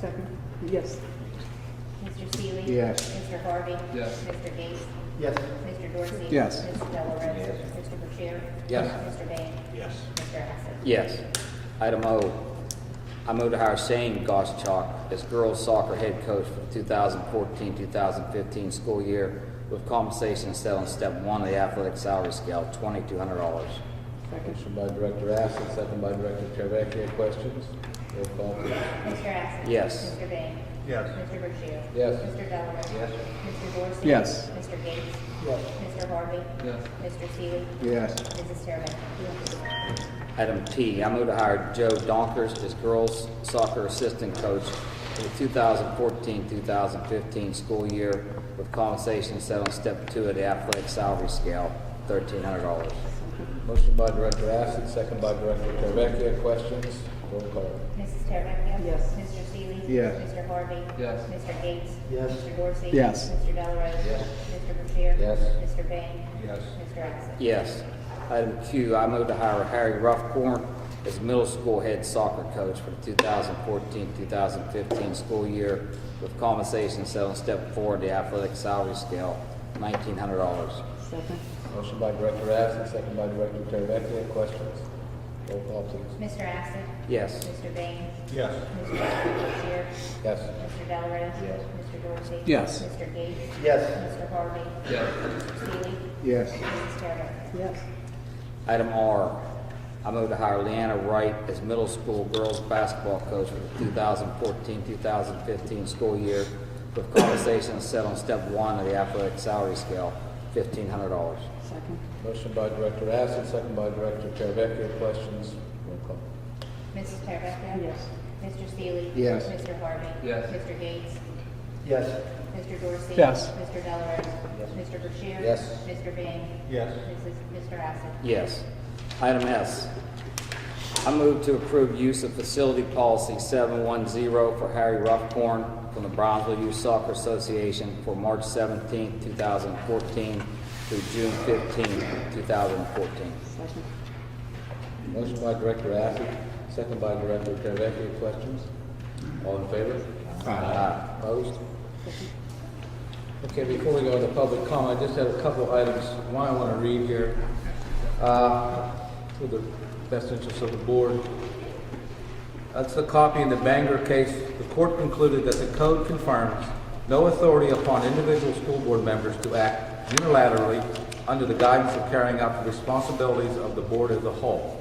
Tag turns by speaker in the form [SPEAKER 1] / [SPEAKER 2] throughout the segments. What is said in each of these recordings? [SPEAKER 1] Second, yes.
[SPEAKER 2] Mr. Seeley?
[SPEAKER 3] Yes.
[SPEAKER 2] Mr. Harvey?
[SPEAKER 4] Yes.
[SPEAKER 2] Mr. Gates?
[SPEAKER 4] Yes.
[SPEAKER 2] Mr. Dorsey?
[SPEAKER 3] Yes.
[SPEAKER 2] Mr. Delarose? Mr. Bashir?
[SPEAKER 5] Yes.
[SPEAKER 2] Mr. Bain?
[SPEAKER 4] Yes.
[SPEAKER 2] Mr. Hassett?
[SPEAKER 5] Yes. Item O, I move to hire Shane Goschalk as girls soccer head coach for the 2014-2015 school year with compensation set on step one of the athletic salary scale, $2,200.
[SPEAKER 1] Second,
[SPEAKER 3] Motion by Director Acid, second by Director Teravicki. Questions? Roll call, please.
[SPEAKER 2] Mr. Hassett?
[SPEAKER 5] Yes.
[SPEAKER 2] Mr. Bain?
[SPEAKER 4] Yes.
[SPEAKER 2] Mr. Bashir?
[SPEAKER 3] Yes.
[SPEAKER 2] Mr. Delarose?
[SPEAKER 4] Yes.
[SPEAKER 2] Mr. Dorsey?
[SPEAKER 3] Yes.
[SPEAKER 2] Mr. Gates?
[SPEAKER 4] Yes.
[SPEAKER 2] Mr. Harvey?
[SPEAKER 4] Yes.
[SPEAKER 2] Mr. Seeley?
[SPEAKER 3] Yes.
[SPEAKER 2] Mrs. Terrabecca?
[SPEAKER 5] Item T, I move to hire Joe Donkers as girls soccer assistant coach for the 2014-2015 school year with compensation set on step two of the athletic salary scale, $1,300.
[SPEAKER 3] Motion by Director Acid, second by Director Teravicki. Questions? Roll call.
[SPEAKER 2] Mrs. Terrabecca?
[SPEAKER 1] Yes.
[SPEAKER 2] Mr. Seeley?
[SPEAKER 3] Yes.
[SPEAKER 2] Mr. Harvey?
[SPEAKER 4] Yes.
[SPEAKER 2] Mr. Gates?
[SPEAKER 4] Yes.
[SPEAKER 2] Mr. Dorsey?
[SPEAKER 3] Yes.
[SPEAKER 2] Mr. Delarose?
[SPEAKER 4] Yes.
[SPEAKER 2] Mr. Bashir?
[SPEAKER 3] Yes.
[SPEAKER 2] Mr. Bain?
[SPEAKER 4] Yes.
[SPEAKER 2] Mr. Hassett?
[SPEAKER 5] Yes. Item Q, I move to hire Harry Ruffcorn as middle school head soccer coach for the 2014-2015 school year with compensation set on step four of the athletic salary scale, $1,900.
[SPEAKER 1] second,
[SPEAKER 3] Motion by Director Acid, second by Director Teravicki. Questions? Roll call, please.
[SPEAKER 2] Mr. Acid?
[SPEAKER 5] Yes.
[SPEAKER 2] Mr. Bain?
[SPEAKER 4] Yes.
[SPEAKER 2] Mr. Bashir?
[SPEAKER 3] Yes.
[SPEAKER 2] Mr. Delarose?
[SPEAKER 3] Yes.
[SPEAKER 2] Mr. Dorsey?
[SPEAKER 3] Yes.
[SPEAKER 2] Mr. Gates?
[SPEAKER 4] Yes.
[SPEAKER 2] Mr. Harvey?
[SPEAKER 4] Yes.
[SPEAKER 2] Mr. Seeley?
[SPEAKER 3] Yes.
[SPEAKER 2] Mrs. Terrabecca?
[SPEAKER 1] yes.
[SPEAKER 5] Item R, I move to hire Leanna Wright as middle school girls basketball coach for the 2014-2015 school year with compensation set on step one of the athletic salary scale, $1,500.
[SPEAKER 1] Second,
[SPEAKER 3] Motion by Director Acid, second by Director Teravicki. Questions? Roll call.
[SPEAKER 2] Mrs. Terrabecca?
[SPEAKER 1] yes.
[SPEAKER 2] Mr. Seeley?
[SPEAKER 3] Yes.
[SPEAKER 2] Mr. Harvey?
[SPEAKER 4] Yes.
[SPEAKER 2] Mr. Gates?
[SPEAKER 4] Yes.
[SPEAKER 2] Mr. Dorsey?
[SPEAKER 3] Yes.
[SPEAKER 2] Mr. Delarose? Mr. Bashir?
[SPEAKER 3] Yes.
[SPEAKER 2] Mr. Bain?
[SPEAKER 4] Yes.
[SPEAKER 2] Mrs. Mr. Acid?
[SPEAKER 5] Yes. Item S, I move to approve use of facility policy 710 for Harry Ruffcorn from the Brownsville Youth Soccer Association for March 17, 2014 through June 15, 2014.
[SPEAKER 1] Second,
[SPEAKER 3] Motion by Director Acid, second by Director Teravicki. Questions? All in favor? Aye. Opposed? Okay, before we go to public comment, I just have a couple items, one I want to read here, uh, for the best interest of the board. That's the copy in the Bangor case. The court concluded that the code confirms no authority upon individual school board members to act unilaterally under the guidance of carrying out the responsibilities of the board as a whole.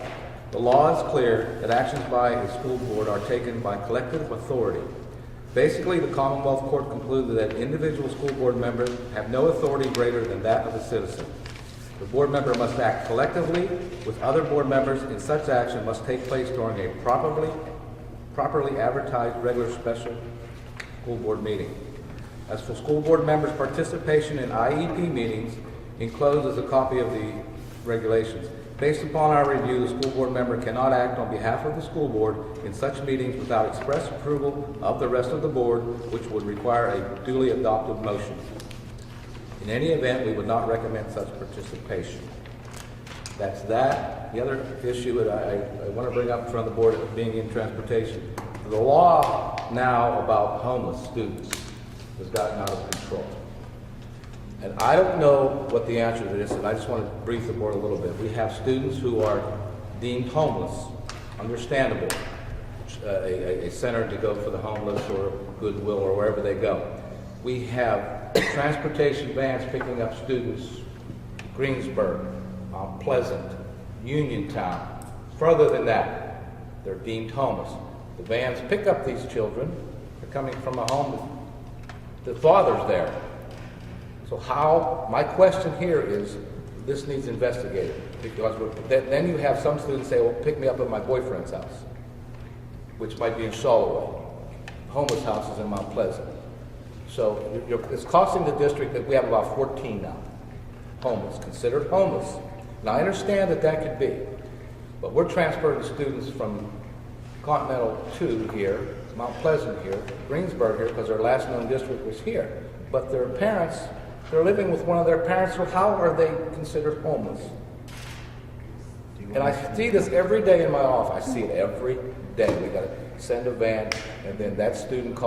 [SPEAKER 3] The law is clear that actions by a school board are taken by collective authority. Basically, the Commonwealth Court concluded that individual school board members have no authority greater than that of a citizen. The board member must act collectively with other board members, and such action must take place during a properly, properly advertised regular special school board meeting. As for school board members' participation in IEP meetings, enclosed is a copy of the regulations. Based upon our review, the school board member cannot act on behalf of the school board in such meetings without express approval of the rest of the board, which would require a duly adopted motion. In any event, we would not recommend such participation. That's that. The other issue that I, I want to bring up in front of the board of being in transportation, the law now about homeless students has gotten out of control. And I don't know what the answer to this, and I just want to brief the board a little bit. We have students who are deemed homeless, understandable, uh, a, a- a center to go for the homeless or Goodwill or wherever they go. We have transportation vans picking up students, Greensburg, Mount Pleasant, Uniontown, further than that, they're deemed homeless. The vans pick up these children, they're coming from a home, that the father's there, so how, my question here is, this needs investigated, because we're- then then you have some students say, well, pick me up at my boyfriend's house, which might be in Soloway, homeless houses in Mount Pleasant. So you're- you're- it's costing the district that we have about 14 now, homeless, considered homeless. Now, I understand that that could be, but we're transferring students from Continental to here, Mount Pleasant here, Greensburg here, because their last known district was here. But their parents, they're living with one of their parents, so how are they considered homeless? And I see this every day in my office. I see it every day. We got it.
[SPEAKER 6] send a van, and then that student calls